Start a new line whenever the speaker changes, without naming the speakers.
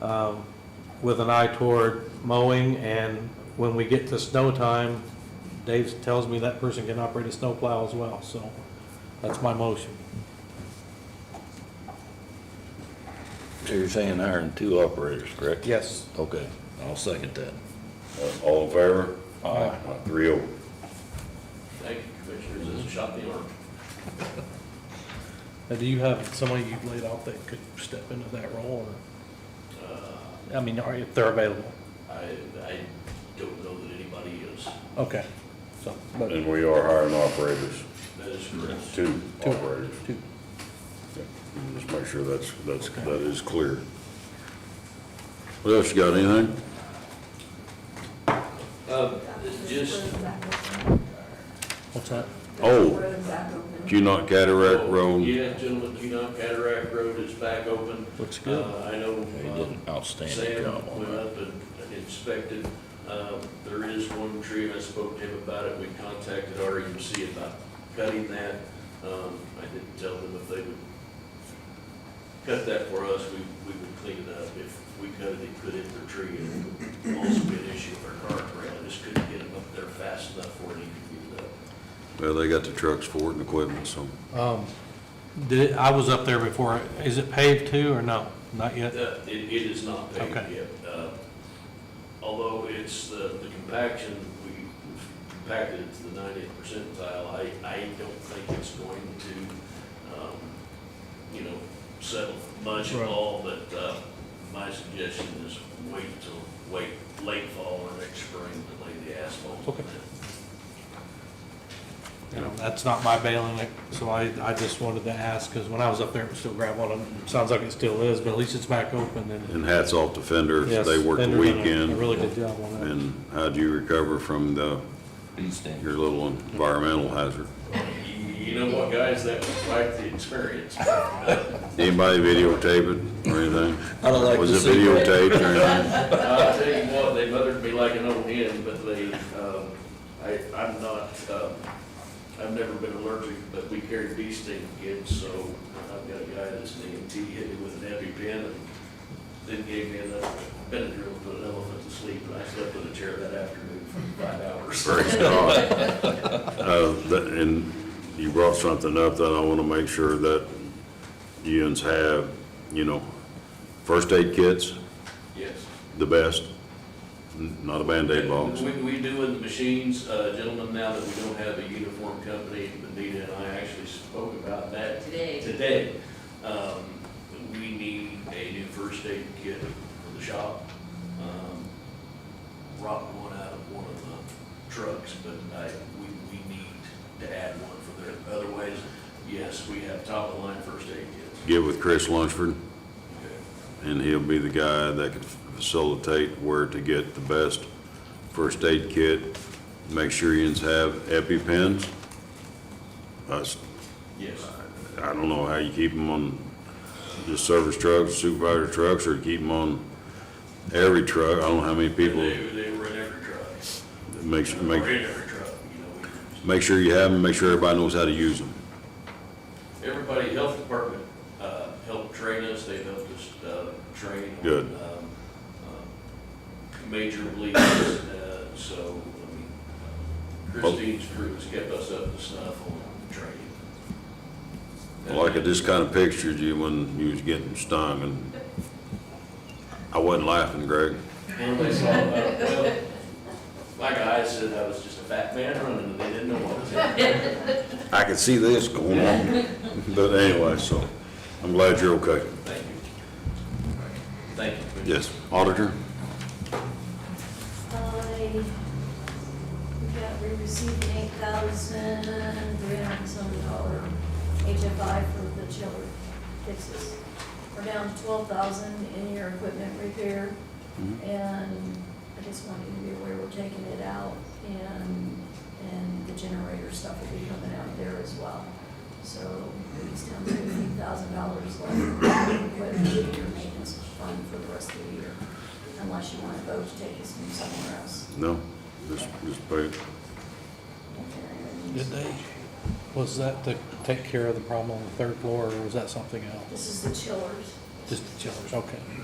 um, with an eye toward mowing, and when we get to snow time, Dave tells me that person can operate a snowplow as well, so that's my motion.
So you're saying hiring two operators, correct?
Yes.
Okay, I'll second that.
Uh, All in favor? Aye. Three oh.
Thank you, Commissioners, this is shot in the arm.
Now, do you have somebody you've laid off that could step into that role,
Uh,
or, I mean, are, if they're available?
I, I don't know that anybody is,
Okay, so, but,
And we are hiring operators,
that is correct.
two
Two.
operators.
two.
Just make sure that's, that's, that is clear. What else you got, anything?
Uh, just,
what's that?
Oh.
Road's back open.
Cunot Cataract Road,
yeah, gentlemen, you know, Cataract Road is back open.
Looks good.
Uh, I know,
They
uh,
did an outstanding
Sam
job on
went
that.
up and and inspected. Uh, There is one tree, and I spoke to him about it. We contacted REMC about cutting that. Um, I didn't tell them if they would cut that for us, we, we would clean it up. If we cut it, they could hit their tree, and it would also be an issue for our car brand. I just couldn't get them up there fast enough for it to be up.
well, they got the trucks for it and equipment, so.
Um, did, I was up there before, is it paved too, or no? Not yet?
Uh, It, it is not paved
Okay.
yet. Uh, Although it's the, the compaction, we compacted it to the ninetieth percentile, I, I don't think it's going to, um, you know, settle much at
Right.
all, but, uh, my suggestion is wait till, wait, late fall or next spring to lay the asphalt. on
Okay.
it.
You know, that's not my bailing, so I, I just wanted to ask, because when I was up there, it was still gravel, and it sounds like it still is, but at least it's back open and.
And hats off to Fender,
Yes,
they worked the
Fender done a- A
weekend.
really good job on that.
And how'd you recover from the, your little environmental hazard?
You, you know what, guys, that was quite the experience.
Anybody videotape it or anything?
I don't like
Was
to
it
see that.
videotaped or anything?
I'll tell you what, they mothered me like an old hen, but they, um, I, I'm not, um, I've never been allergic, but we carried bee sting kids, so I've got a guy that's an EMT hit me with an EpiPen and then gave me enough Benadryl to put an elephant to sleep, and I slept in a chair that afternoon for five hours.
Praise God. Uh, that- And you brought something up that I want to make sure that UNs have, you know, first aid kits,
Yes.
the best, n- not a Band-Aid box.
We, we do in the machines, uh, gentlemen, now that we don't have a uniform company, Benita and I actually spoke about that
Today,
today, um, we need a new first aid kit for the shop. Um, Robbed one out of one of the trucks, but I, we, we need to add one for there. Otherwise, yes, we have top of the line first aid kits.
Get with Chris Lunsford,
Okay.
and he'll be the guy that can facilitate where to get the best first aid kit. Make sure UNs have EpiPens. That's
Yes.
I don't know how you keep them on just service trucks, supervisor trucks, or keep them on every truck. I don't know how many people,
They, they were in every truck.
make, su-
Or
make,
in every truck, you know. we-
make sure you have them, make sure everybody knows how to use them.
Everybody, health department, uh, helped train us, they helped us, uh, train. on,
Good.
um, um, Major bleeds, uh, so, I mean, Christine's crew has kept us up to snuff on training.
Like I just kind of pictured you when you was getting stung, and I wasn't laughing, Greg.
When they saw, uh, well, like I said, I was just a fat man running, and they didn't know what was happening.
I could see this going on. But anyway, so I'm glad you're okay.
Thank you. Thank you. Commissioner.
Yes, auditor?
I, we got, we received an eight thousand three hundred and some dollar HFI for the chiller fixes. We're down to twelve thousand in your equipment repair, and I just want you to be aware we're taking it out, and, and the generator stuff will be coming out there as well. So it's down to eight thousand dollars left in equipment in your maintenance fund for the rest of the year, unless you want to vote to take this from somewhere else.
No, just, just pay it.
Did they, was that to take care of the problem on the third floor, or was that something else?
This is the chillers.
Just the chillers, okay.